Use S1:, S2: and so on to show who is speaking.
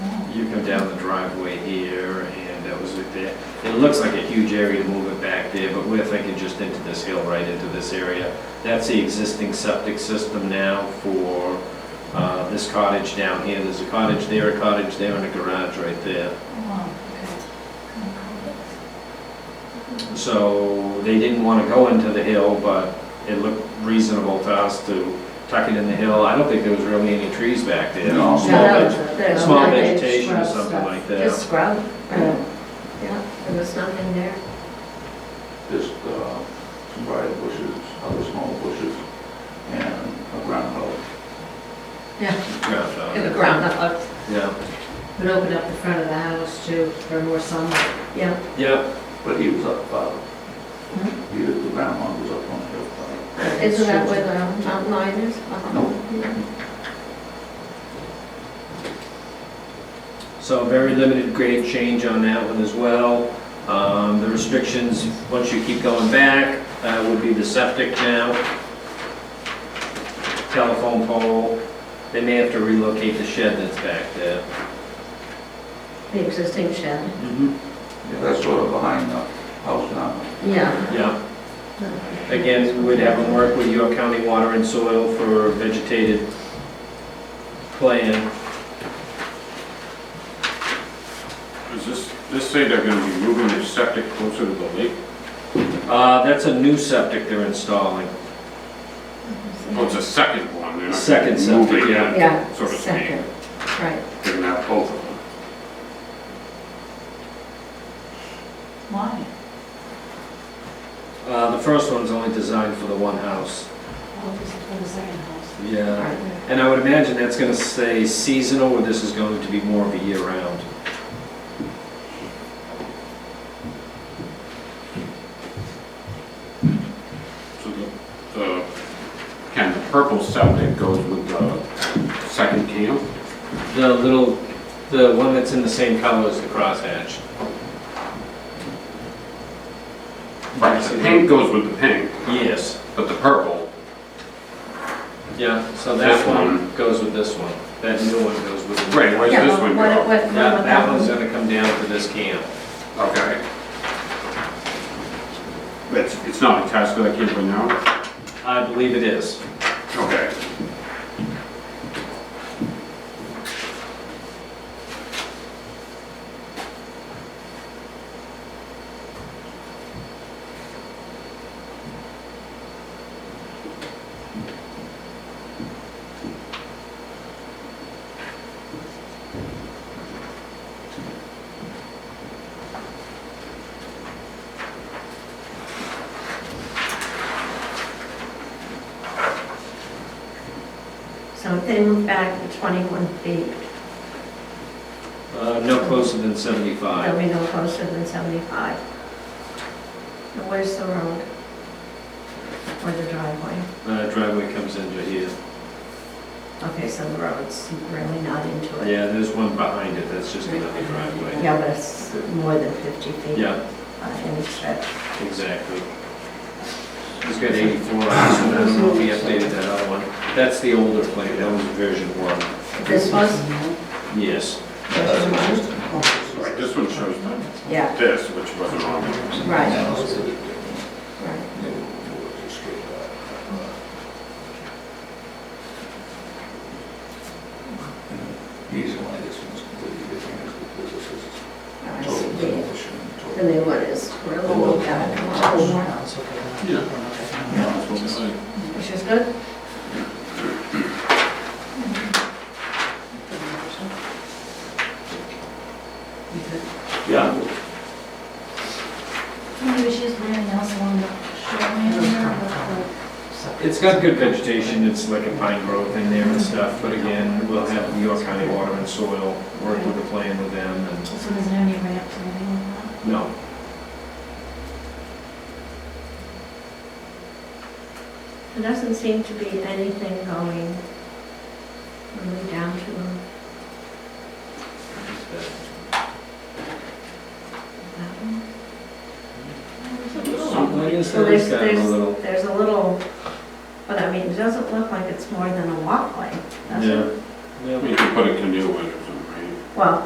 S1: come down the driveway here, and that was it there. It looks like a huge area to move it back there, but we're thinking just into this hill, right into this area. That's the existing septic system now for uh, this cottage down here. There's a cottage there, a cottage there, and a garage right there. So they didn't want to go into the hill, but it looked reasonable to us to tuck it in the hill. I don't think there was really any trees back there.
S2: No.
S1: Small
S2: No.
S1: veg- small vegetation or something like
S3: Just
S1: that.
S3: scrub,
S2: Yeah.
S3: yeah, there was nothing there.
S2: Just uh, some briar bushes, other small bushes, and a groundhog.
S1: Ground cover.
S3: In the ground, up- up,
S1: Yeah,
S3: would open up the front of the house too, for more sunlight. Yeah,
S1: yeah,
S2: But he was up, uh,
S3: Mm-hmm.
S2: he, the groundhog was up on the hill.
S3: isn't that where the mountain lion is? Uh-huh.
S2: No.
S3: Yeah.
S1: so very limited grade change on that one as well. Um, The restrictions, once you keep going back, uh, would be the septic now, telephone pole, they may have to relocate the shed that's back there.
S3: The existing shed,
S2: Yeah, that's sort of behind the house now.
S3: yeah.
S1: Yeah, again, we'd have them work with York County Water and Soil for a vegetated plan.
S4: Does this, this say they're gonna be moving their septic closer to the lake?
S1: Uh, That's a new septic they're installing.
S4: Oh, it's a second one, they're not
S1: Second
S4: gonna be
S1: septic,
S4: moving
S1: yeah.
S4: it,
S3: Yeah,
S4: so to speak.
S3: second, right.
S4: They're gonna have both of them.
S5: Why?
S1: Uh, The first one's only designed for the one house.
S5: Well, this is for the second house.
S1: Yeah.
S3: right.
S1: And I would imagine that's gonna say seasonal, or this is going to be more of a year-round.
S4: So the, the, can the purple septic goes with the second camp?
S1: The little, the one that's in the same color as the crosshatch.
S4: Right, the pink goes with the pink,
S1: Yes,
S4: but the purple,
S1: yeah, so that
S4: This
S1: one
S4: one.
S1: goes with this one. That new one goes with the...
S4: right, where's
S3: Yeah,
S4: this
S3: but
S4: one
S3: what-
S4: go?
S3: what- what
S1: Yeah,
S3: about
S1: that one's
S3: one?
S1: gonna come down to this camp.
S4: Okay. It's, it's not attached to that camp right now?
S1: I believe it is.
S4: Okay.
S3: So if they move back to 21 feet,
S1: Uh, No closer than 75.
S3: they'll be no closer than 75. And where's the road? Or the driveway?
S1: Uh, Driveway comes into here.
S3: Okay, so the road's really not into it.
S1: Yeah, there's one behind it, that's just another driveway.
S3: Yeah, but it's more than 50 feet.
S1: Yeah,
S3: uh, Any stretch.
S1: exactly. He's got 84 on this one, I don't know if he updated that other one. That's the older plan, that was version one.
S3: This was,
S1: Yes.
S3: Oh.
S4: Right, this one shows the-
S3: yeah,
S4: this, which wasn't on there.
S3: right, right.
S2: The reason why this one's completely different is because this is
S3: I see. Oh,
S2: total demolition. total-
S3: The new one is really moved out a lot more,
S2: Yeah.
S4: That's what it's like.
S3: which is good.
S1: Yeah.
S5: Maybe she's wearing else along the shoreline here, but
S1: It's got good vegetation, it's like a pine grove in there and stuff, but again, we'll have New York County Water and Soil work with the plan with them and,
S5: the- so there's no any ramps or anything like that?
S1: no.
S3: There doesn't seem to be anything going really down to that one.
S1: Something is
S3: So
S1: there,
S3: there's,
S1: it's got a
S3: there's,
S1: little,
S3: there's a little, but I mean, it doesn't look like it's more than a walkway, does it?
S1: yeah.
S4: You can put a canoe in or something, right?
S3: Well,